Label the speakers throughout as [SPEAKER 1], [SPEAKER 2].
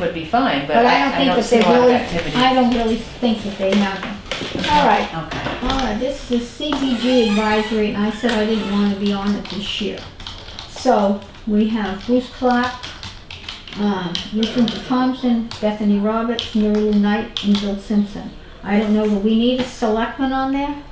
[SPEAKER 1] would be fine, but
[SPEAKER 2] But I
[SPEAKER 1] I I
[SPEAKER 2] don't
[SPEAKER 1] don't see
[SPEAKER 2] think
[SPEAKER 1] a
[SPEAKER 2] that they
[SPEAKER 1] lot of
[SPEAKER 2] really,
[SPEAKER 1] activity.
[SPEAKER 2] I don't really think that they have them. All right,
[SPEAKER 1] Okay,
[SPEAKER 2] all right, this is the CBG advisory, and I said I didn't want to be on it this year. So, we have Bruce Clark, um, Lucinda Thompson, Bethany Roberts, Marie Knight, and Bill Simpson. I don't know, do we need a selectman on there?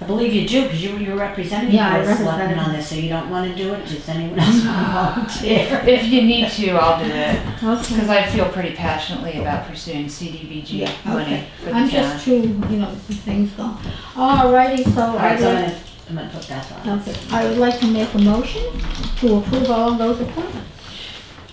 [SPEAKER 3] I believe you do, because you were representing
[SPEAKER 2] Yeah, I
[SPEAKER 3] the selectmen
[SPEAKER 2] represented.
[SPEAKER 3] on this, so you don't want to do it, does anyone else want to volunteer?
[SPEAKER 1] if you need to, I'll do it, because
[SPEAKER 2] Okay.
[SPEAKER 1] I feel pretty passionately about pursuing CDBG
[SPEAKER 2] Yeah,
[SPEAKER 1] money
[SPEAKER 2] okay.
[SPEAKER 1] for the
[SPEAKER 2] I'm
[SPEAKER 1] town.
[SPEAKER 2] just too, you know, things go. All righty, so
[SPEAKER 3] All
[SPEAKER 2] I
[SPEAKER 3] right, so I'm
[SPEAKER 2] would,
[SPEAKER 3] gonna, I'm gonna put that on.
[SPEAKER 2] okay, I would like to make a motion to approve all of those appointments.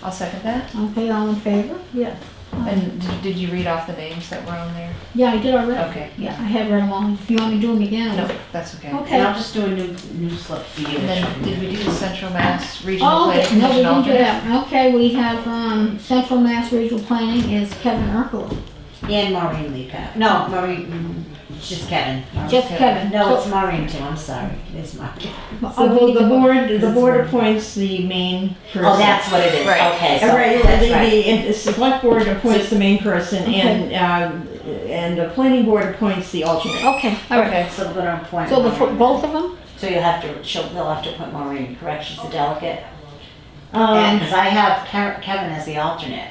[SPEAKER 1] I'll second that.
[SPEAKER 2] Okay, all in favor? Yeah.
[SPEAKER 1] And d- did you read off the names that were on there?
[SPEAKER 2] Yeah, I did already.
[SPEAKER 1] Okay,
[SPEAKER 2] Yeah, I had read them all. If you want me to do them again?
[SPEAKER 1] Oh. no,
[SPEAKER 2] I'll-
[SPEAKER 1] that's Oh, okay.
[SPEAKER 3] And I'll
[SPEAKER 2] Okay.
[SPEAKER 3] just do a new, new slip for you.
[SPEAKER 1] And then, did we do the Central Mass Regional
[SPEAKER 2] Oh,
[SPEAKER 1] Planning
[SPEAKER 2] okay. no, we
[SPEAKER 1] Commission
[SPEAKER 2] didn't do
[SPEAKER 1] alternate?
[SPEAKER 2] that. Okay, we have, um, Central Mass Regional Planning is Kevin Urkel.
[SPEAKER 3] And Maureen Lee Pat, no, Maureen, mm, it's just Kevin.
[SPEAKER 2] Just
[SPEAKER 1] Okay.
[SPEAKER 2] Kevin.
[SPEAKER 3] No, it's
[SPEAKER 2] So-
[SPEAKER 3] Maureen too, I'm sorry, it's Maureen.
[SPEAKER 2] oh, we
[SPEAKER 4] So
[SPEAKER 2] need
[SPEAKER 4] the
[SPEAKER 2] to-
[SPEAKER 4] board, the board
[SPEAKER 3] That's-
[SPEAKER 4] appoints the main person.
[SPEAKER 3] Oh, that's what it is,
[SPEAKER 1] Right.
[SPEAKER 3] okay, so,
[SPEAKER 4] Uh, Right, the,
[SPEAKER 3] that's right.
[SPEAKER 4] the, the select board appoints the main person and, uh, and the planning board appoints the alternate.
[SPEAKER 2] Okay, all right.
[SPEAKER 1] Okay,
[SPEAKER 3] So we're gonna appoint
[SPEAKER 2] So the, fir-
[SPEAKER 3] Maureen.
[SPEAKER 2] both of them?
[SPEAKER 3] So you'll have to, she'll, they'll have to appoint Maureen, correct, she's the delegate? And,
[SPEAKER 4] Um,
[SPEAKER 3] because I have Ke- Kevin as the alternate.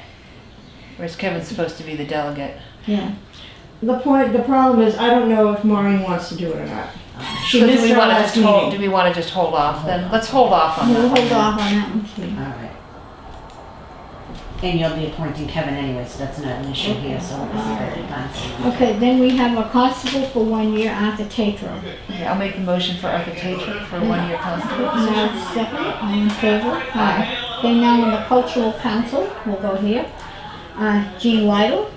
[SPEAKER 1] whereas Kevin's supposed to be the delegate.
[SPEAKER 2] Yeah.
[SPEAKER 4] the point, the problem is, I don't know if Maureen wants to do it or not. She
[SPEAKER 1] So do
[SPEAKER 4] missed
[SPEAKER 1] we
[SPEAKER 4] our
[SPEAKER 1] wanna
[SPEAKER 4] last
[SPEAKER 1] just hold-
[SPEAKER 4] meeting.
[SPEAKER 1] Do we wanna just hold off then? Let's hold off on
[SPEAKER 2] We'll
[SPEAKER 1] that.
[SPEAKER 2] hold off on that one too.
[SPEAKER 3] All right. And you'll be appointing Kevin anyway, so that's not an issue here, so it's already done.
[SPEAKER 2] Okay, then we have a constable for one year, Arthur Tatro.
[SPEAKER 1] Okay, I'll make the motion for Arthur Tatro for one-year constable.
[SPEAKER 2] Now it's second, I am in favor, aye. Then now on the cultural council, we'll go here, uh, Jean Lytle.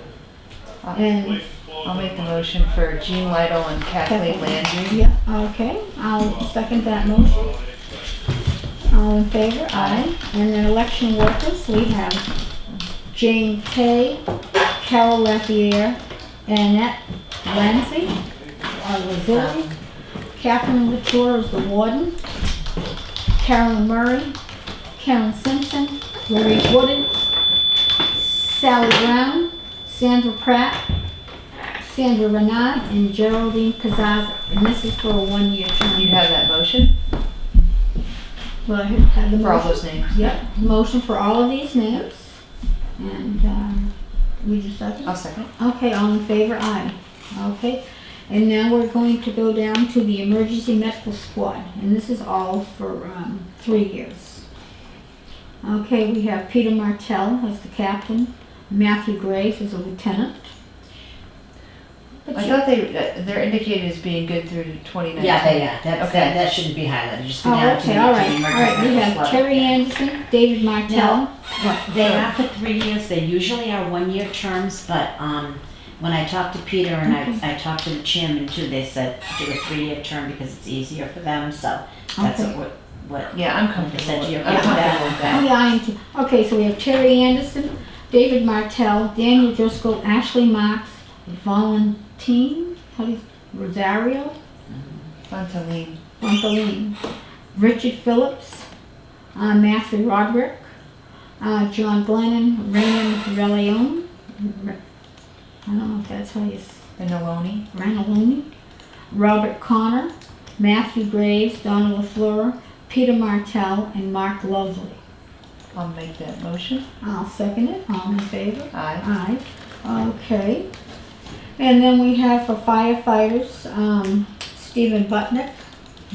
[SPEAKER 2] And,
[SPEAKER 1] I'll make the motion for Jean Lytle and Kathleen Landry.
[SPEAKER 2] yeah, okay, I'll second that motion. All in favor, aye. And then election workers, we have Jane Kay, Carol Lafayette, Annette Lancy, or Lazuli, Catherine Latour is the warden, Carolyn Murray, Karen Simpson, Lori Woodard, Sally Brown, Sandra Pratt, Sandra Renard, and Geraldine Kazaz. And this is for a one-year term.
[SPEAKER 1] You have that motion
[SPEAKER 2] Well, I have the
[SPEAKER 1] for all
[SPEAKER 2] motion.
[SPEAKER 1] those names?
[SPEAKER 2] Yep, motion for all of these names. And, um, we just second?
[SPEAKER 1] I'll second.
[SPEAKER 2] Okay, all in favor, aye. Okay, and now we're going to go down to the emergency medical squad, and this is all for, um, three years. Okay, we have Peter Martell as the captain, Matthew Graves as a lieutenant. But
[SPEAKER 1] I
[SPEAKER 2] you-
[SPEAKER 1] thought they, uh, they're indicated as being good through 2019.
[SPEAKER 3] Yeah, they, yeah, that's,
[SPEAKER 1] Okay.
[SPEAKER 3] that, that shouldn't be highlighted, just go
[SPEAKER 2] Oh,
[SPEAKER 3] down to the
[SPEAKER 2] okay, all right,
[SPEAKER 3] emergency
[SPEAKER 2] all right, we have
[SPEAKER 3] slot.
[SPEAKER 2] Terry Anderson, David Martell.
[SPEAKER 3] They are for three years, they usually are one-year terms, but, um, when I talked to Peter and I, I talked to the chairman too, they said do a three-year term because it's easier for them, so that's
[SPEAKER 2] Okay.
[SPEAKER 3] what, what,
[SPEAKER 1] Yeah, I'm comfortable
[SPEAKER 3] said
[SPEAKER 1] with
[SPEAKER 3] to you.
[SPEAKER 1] I'm comfortable with
[SPEAKER 2] Oh,
[SPEAKER 1] that.
[SPEAKER 2] yeah, I am too. Okay, so we have Terry Anderson, David Martell, Daniel Driscoll, Ashley Marks, Valentine, how do you, Rosario,
[SPEAKER 1] Montalene.
[SPEAKER 2] Montalene, Richard Phillips, uh, Matthew Roderick, uh, John Glennon, Raymond Relione, I don't know if that's how you, s-
[SPEAKER 1] Beneloni.
[SPEAKER 2] Ranaloni, Robert Connor, Matthew Graves, Donna LaFleur, Peter Martell, and Mark Lovely.
[SPEAKER 1] I'll make that motion.
[SPEAKER 2] I'll second it. All in favor?
[SPEAKER 1] Aye.
[SPEAKER 2] Aye, okay. And then we have for firefighters, um, Stephen Butnick,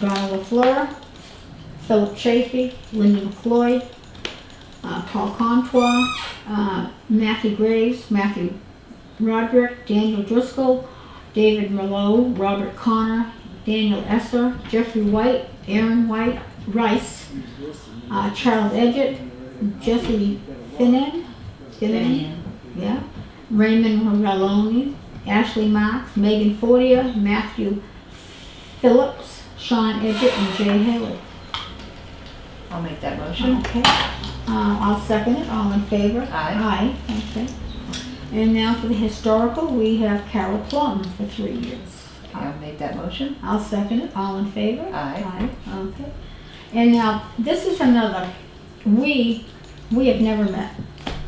[SPEAKER 2] Donna LaFleur, Philip Chafee, Linda McLeod, uh, Paul Contois, uh, Matthew Graves, Matthew Roderick, Daniel Driscoll, David Merlot, Robert Connor, Daniel Esser, Jeffrey White, Aaron White, Rice, uh, Charles Edgett, Jesse Finnan, Finnan, yeah. Raymond Morelloni, Ashley Marks, Megan Fortier, Matthew Phillips, Sean Edgett, and Jay Haley.
[SPEAKER 1] I'll make that motion.
[SPEAKER 2] Okay. Uh, I'll second it. All in favor?
[SPEAKER 1] Aye.
[SPEAKER 2] Aye. Okay. And now for the historical, we have Carol Plum for three years.
[SPEAKER 1] Okay, I'll make that motion.
[SPEAKER 2] I'll second it. All in favor?
[SPEAKER 1] Aye.
[SPEAKER 2] Aye. Okay. And now this is another. We we have never met.